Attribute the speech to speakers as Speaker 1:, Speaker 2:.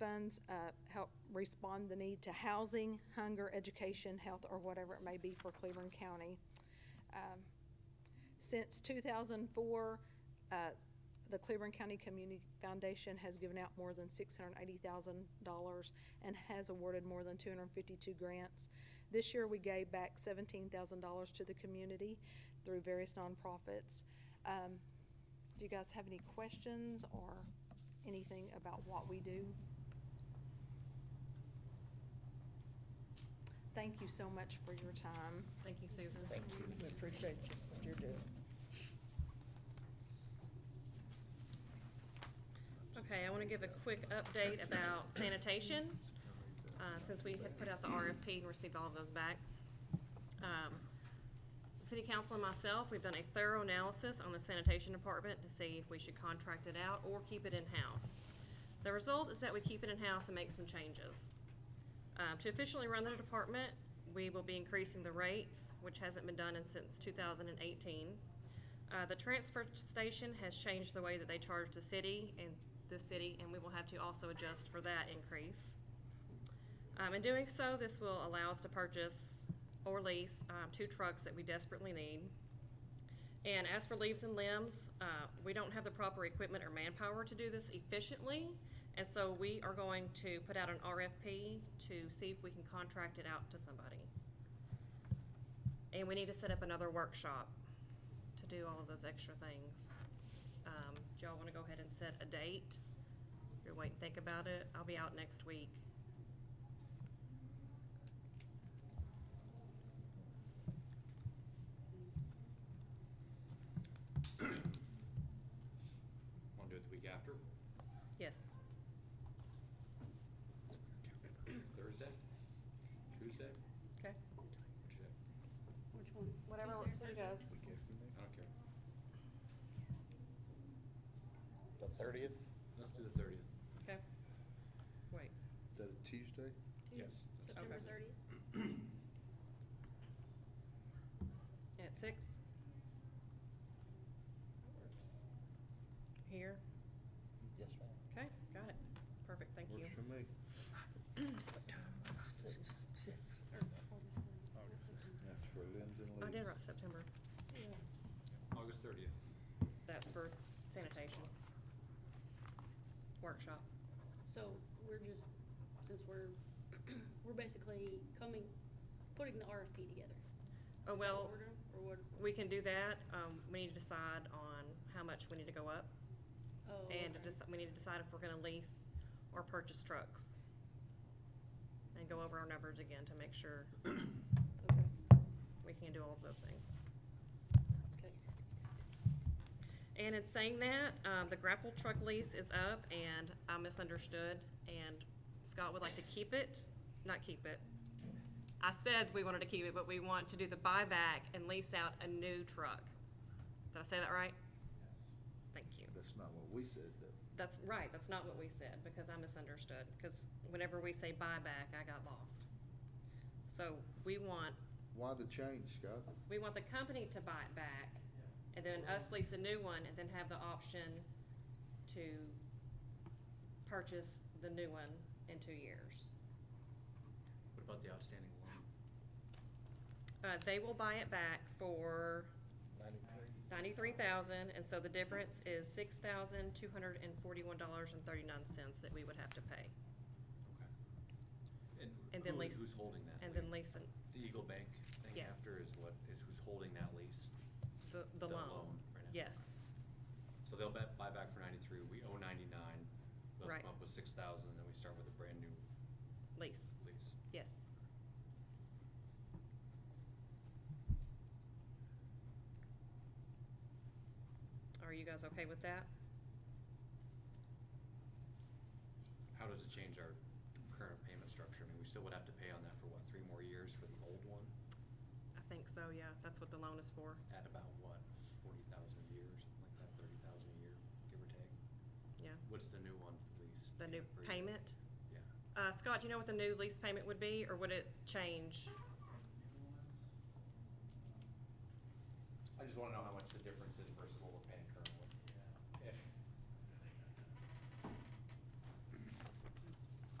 Speaker 1: funds, uh, help respond the need to housing, hunger, education, health, or whatever it may be for Cleveland County. Um, Since two thousand four, uh, the Cleveland County Community Foundation has given out more than six hundred and eighty thousand dollars and has awarded more than two hundred and fifty-two grants. This year, we gave back seventeen thousand dollars to the community through various nonprofits. Um, do you guys have any questions or anything about what we do? Thank you so much for your time.
Speaker 2: Thank you, Susan.
Speaker 3: Thank you, we appreciate you, what you're doing.
Speaker 2: Okay, I want to give a quick update about sanitation, uh, since we had put out the RFP and received all of those back. Um, City council and myself, we've done a thorough analysis on the sanitation department to see if we should contract it out or keep it in-house. The result is that we keep it in-house and make some changes. Um, to officially run the department, we will be increasing the rates, which hasn't been done in- since two thousand and eighteen. Uh, the transfer station has changed the way that they charge the city and the city, and we will have to also adjust for that increase. Um, in doing so, this will allow us to purchase or lease, um, two trucks that we desperately need. And as for leaves and limbs, uh, we don't have the proper equipment or manpower to do this efficiently. And so we are going to put out an RFP to see if we can contract it out to somebody. And we need to set up another workshop to do all of those extra things. Um, do y'all wanna go ahead and set a date? You're waiting, think about it. I'll be out next week.
Speaker 4: Want to do it the week after,
Speaker 2: Yes.
Speaker 4: Thursday, Tuesday,
Speaker 2: Okay.
Speaker 4: What'd you say?
Speaker 5: Which one?
Speaker 6: Whatever works for you guys.
Speaker 4: I don't care.
Speaker 3: The thirtieth?
Speaker 4: Let's do the thirtieth.
Speaker 2: Okay. Wait.
Speaker 7: That a Tuesday?
Speaker 4: Yes.
Speaker 6: September
Speaker 2: Okay.
Speaker 6: thirtieth?
Speaker 2: At six? Here.
Speaker 3: Yes, ma'am.
Speaker 2: Okay, got it. Perfect, thank you.
Speaker 7: Works for me.
Speaker 3: Six, six.
Speaker 7: That's for limbs and
Speaker 2: I
Speaker 7: leaves.
Speaker 2: did write September.
Speaker 4: August thirtieth.
Speaker 2: That's for sanitation. Workshop.
Speaker 5: So we're just, since we're, we're basically coming, putting the RFP together.
Speaker 2: Oh,
Speaker 5: Is that what
Speaker 2: well,
Speaker 5: we're doing? Or what?
Speaker 2: we can do that. Um, we need to decide on how much we need to go up.
Speaker 5: oh,
Speaker 2: And to
Speaker 5: okay.
Speaker 2: deci- we need to decide if we're gonna lease or purchase trucks. And go over our numbers again to make sure
Speaker 5: Okay.
Speaker 2: we can do all of those things.
Speaker 5: Okay.
Speaker 2: And in saying that, um, the grapple truck lease is up and I misunderstood and Scott would like to keep it, not keep it. I said we wanted to keep it, but we want to do the buyback and lease out a new truck. Did I say that right? Thank you.
Speaker 7: That's not what we said, though.
Speaker 2: That's right, that's not what we said, because I misunderstood, because whenever we say buyback, I got lost. So we want,
Speaker 7: Why the change, Scott?
Speaker 2: we want the company to buy it back, and then us lease a new one, and then have the option to purchase the new one in two years.
Speaker 4: What about the outstanding loan?
Speaker 2: Uh, they will buy it back for
Speaker 3: Ninety-three.
Speaker 2: ninety-three thousand, and so the difference is six thousand two hundred and forty-one dollars and thirty-nine cents that we would have to pay,
Speaker 4: Okay.
Speaker 2: And then
Speaker 4: who-
Speaker 2: lease-
Speaker 4: Who's holding that?
Speaker 2: and then
Speaker 4: lea-
Speaker 2: lease an-
Speaker 4: The Eagle Bank thing
Speaker 2: Yes.
Speaker 4: after is what, is who's holding that lease?
Speaker 2: the, the loan.
Speaker 4: right now.
Speaker 2: Yes.
Speaker 4: So they'll bet, buy back for ninety-three, we owe ninety-nine, they'll
Speaker 2: Right.
Speaker 4: come up with six thousand, and then we start with a brand new
Speaker 2: Lease,
Speaker 4: lease.
Speaker 2: yes. Are you guys okay with that?
Speaker 4: How does it change our current payment structure? I mean, we still would have to pay on that for what, three more years for the old one?
Speaker 2: I think so, yeah, that's what the loan is for,
Speaker 4: At about what, forty thousand a year or something like that, thirty thousand a year, give or take?
Speaker 2: yeah.
Speaker 4: What's the new one lease?
Speaker 2: The new
Speaker 4: per year?
Speaker 2: payment.
Speaker 4: Yeah.
Speaker 2: Uh, Scott, do you know what the new lease payment would be, or would it change?
Speaker 4: I just wanna know how much the difference is versus what we're paying